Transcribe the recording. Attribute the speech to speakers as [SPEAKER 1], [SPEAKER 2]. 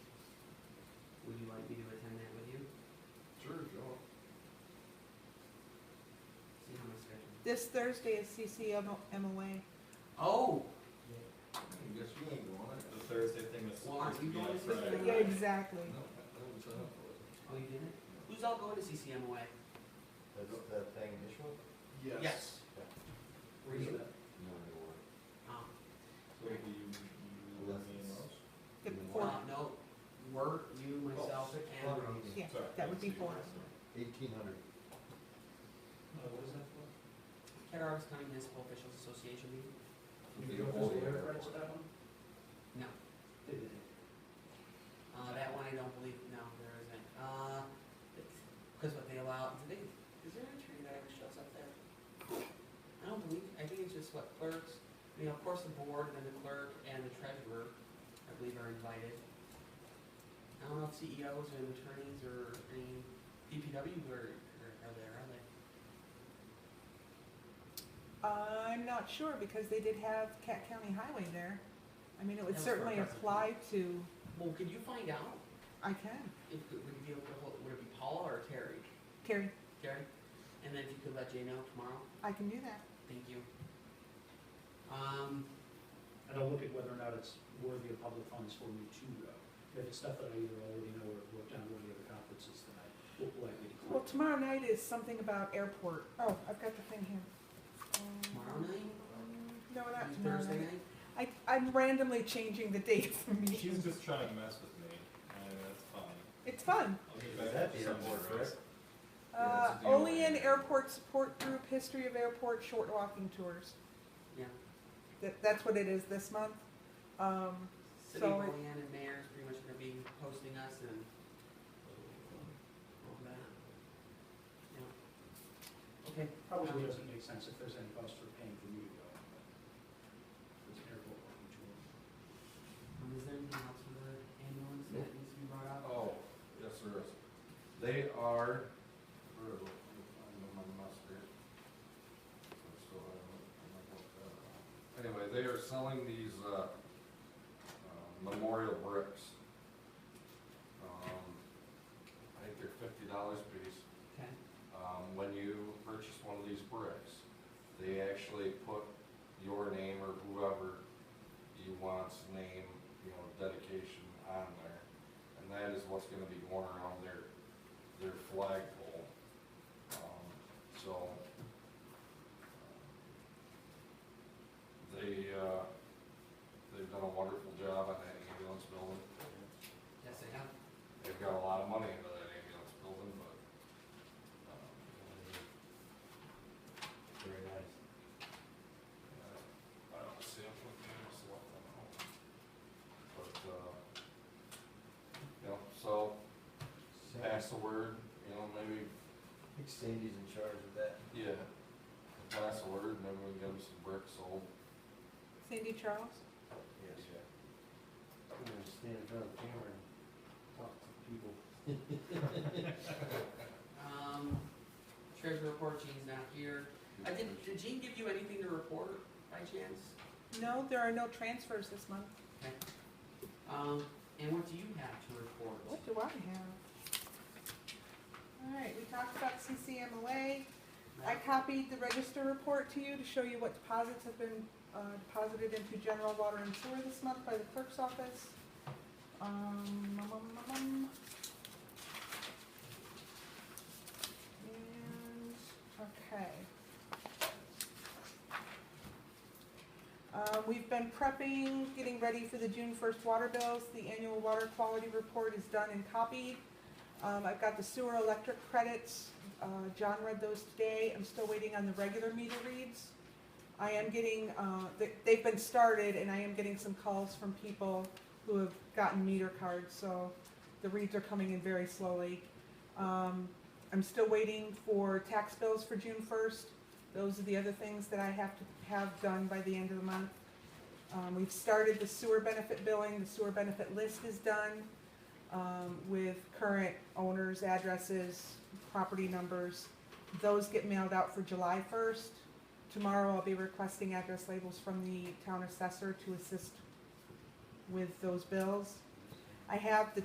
[SPEAKER 1] This Thursday is CCMOA.
[SPEAKER 2] Oh. I guess you ain't going.
[SPEAKER 3] The Thursday thing was
[SPEAKER 2] Well, aren't
[SPEAKER 3] supposed to
[SPEAKER 2] you
[SPEAKER 3] be on
[SPEAKER 2] going to
[SPEAKER 3] Friday.
[SPEAKER 2] the-
[SPEAKER 1] Yeah,
[SPEAKER 2] No,
[SPEAKER 1] exactly.
[SPEAKER 2] that was up for
[SPEAKER 4] Oh, you didn't? Who's all going to CCMOA?
[SPEAKER 5] That, that thing initial?
[SPEAKER 4] Yes. Were you?
[SPEAKER 5] No, no, no.
[SPEAKER 4] Um,
[SPEAKER 3] So it'd be you, you,
[SPEAKER 5] Unless
[SPEAKER 3] me, and
[SPEAKER 5] it's-
[SPEAKER 3] Rose?
[SPEAKER 1] The
[SPEAKER 5] Wow.
[SPEAKER 4] uh,
[SPEAKER 1] fourth,
[SPEAKER 4] no, were you, myself,
[SPEAKER 5] Oh, six
[SPEAKER 4] and
[SPEAKER 5] o'clock.
[SPEAKER 4] Rose.
[SPEAKER 1] yeah,
[SPEAKER 3] Sorry,
[SPEAKER 1] that would be
[SPEAKER 3] let's see.
[SPEAKER 1] four.
[SPEAKER 5] Eighteen hundred.
[SPEAKER 4] Uh, what was that for? Cattaraugus County Municipal Officials Association meeting?
[SPEAKER 5] It'd be a whole year.
[SPEAKER 4] No. Uh, that one I don't believe, no, there isn't. Uh, because what they allow, do they, is there a tree that ever shows up there? I don't believe, I think it's just what clerks, I mean, of course the board and then the clerk and the treasurer, I believe are invited. I don't know if CEOs and attorneys or any DPW are, are are there, are they?
[SPEAKER 1] I'm not sure, because they did have Cat County Highway there. I mean, it
[SPEAKER 4] That
[SPEAKER 1] would
[SPEAKER 4] was for a
[SPEAKER 1] certainly
[SPEAKER 4] president.
[SPEAKER 1] apply to,
[SPEAKER 4] Well, could you find out
[SPEAKER 1] I can,
[SPEAKER 4] if, would it be, able to hold- would it be Paula or Terry?
[SPEAKER 1] Terry,
[SPEAKER 4] Terry? And then if you could let Jay know tomorrow?
[SPEAKER 1] I can do that.
[SPEAKER 4] Thank you. Um,
[SPEAKER 6] And I'll look at whether or not it's worthy of public funds for me to go. If it's stuff that I either already know or have worked on at one of the other conferences, then I will likely
[SPEAKER 1] Well, tomorrow
[SPEAKER 6] decline.
[SPEAKER 1] night is something about airport. Oh, I've got the thing here. Um,
[SPEAKER 4] tomorrow night,
[SPEAKER 1] No, not tomorrow
[SPEAKER 4] Thursday
[SPEAKER 1] night.
[SPEAKER 4] Uh, night?
[SPEAKER 1] I, I'm randomly changing the dates for
[SPEAKER 3] She's
[SPEAKER 1] meetings.
[SPEAKER 3] just trying to mess with me, and that's fine.
[SPEAKER 1] It's fun.
[SPEAKER 3] I'll get
[SPEAKER 5] Is
[SPEAKER 3] back
[SPEAKER 5] that
[SPEAKER 3] to
[SPEAKER 5] the
[SPEAKER 3] some
[SPEAKER 5] airport,
[SPEAKER 3] more,
[SPEAKER 5] correct?
[SPEAKER 3] Rose.
[SPEAKER 1] Uh,
[SPEAKER 5] that's a deal.
[SPEAKER 1] only in airport support group, history of airport, short walking tours.
[SPEAKER 4] Yeah.
[SPEAKER 1] That, that's what it is this month. Um,
[SPEAKER 4] City
[SPEAKER 1] So-
[SPEAKER 4] Plan and Mayor is pretty much gonna be hosting us and all that. Yeah. Okay,
[SPEAKER 6] Probably doesn't make sense if there's any cost for paying for me to go. It's an airport walking tour.
[SPEAKER 4] um, is there anything else for the ambulance that
[SPEAKER 5] Nope.
[SPEAKER 4] needs to be brought up?
[SPEAKER 5] Oh, yes, there is. They are, where do I I know my mustard. So I don't- I don't know what that is. Anyway, they are selling these, uh, uh, memorial bricks. Um, I think they're fifty dollars a piece.
[SPEAKER 4] Okay,
[SPEAKER 5] um, when you purchase one of these bricks, they actually put your name or whoever you want's name, you know, dedication on there. And that is what's gonna be going around their, their flagpole. Um, so. um, They, uh, they've done a wonderful job on that ambulance building.
[SPEAKER 4] yes, I have.
[SPEAKER 5] They've got a lot of money into that ambulance building, but, um,
[SPEAKER 2] Very nice.
[SPEAKER 5] I don't see him looking at us a lot, I don't know. But, uh, you know, so, pass the word, you know, maybe,
[SPEAKER 2] think Sandy's in charge of that.
[SPEAKER 5] yeah, pass the word, and then we can get him some bricks sold.
[SPEAKER 1] Cindy Charles?
[SPEAKER 2] Yes. I'm gonna stand in front of the camera and talk to people.
[SPEAKER 4] Um, treasure report, Gene's not here. I did, did Gene give you anything to report by chance?
[SPEAKER 1] No, there are no transfers this month.
[SPEAKER 4] Um, and what do you have to report?
[SPEAKER 1] What do I have? All right, we talked about CCMOA. I copied the register report to you to show you what deposits have been uh, deposited into general water and sewer this month by the clerk's office. Um, um, um, um, um. And, okay. Uh, We've been prepping, getting ready for the June first water bills. The annual water quality report is done and copied. Um, I've got the sewer electric credits. Uh, John read those today. I'm still waiting on the regular meter reads. I am getting, uh, they- they've been started and I am getting some calls from people who have gotten meter cards, so the reads are coming in very slowly. Um, I'm still waiting for tax bills for June first. Those are the other things that I have to have done by the end of the month. Um, we've started the sewer benefit billing. The sewer benefit list is done um, with current owners, addresses, property numbers. Those get mailed out for July first. Tomorrow I'll be requesting address labels from the town assessor to assist with those bills. I have the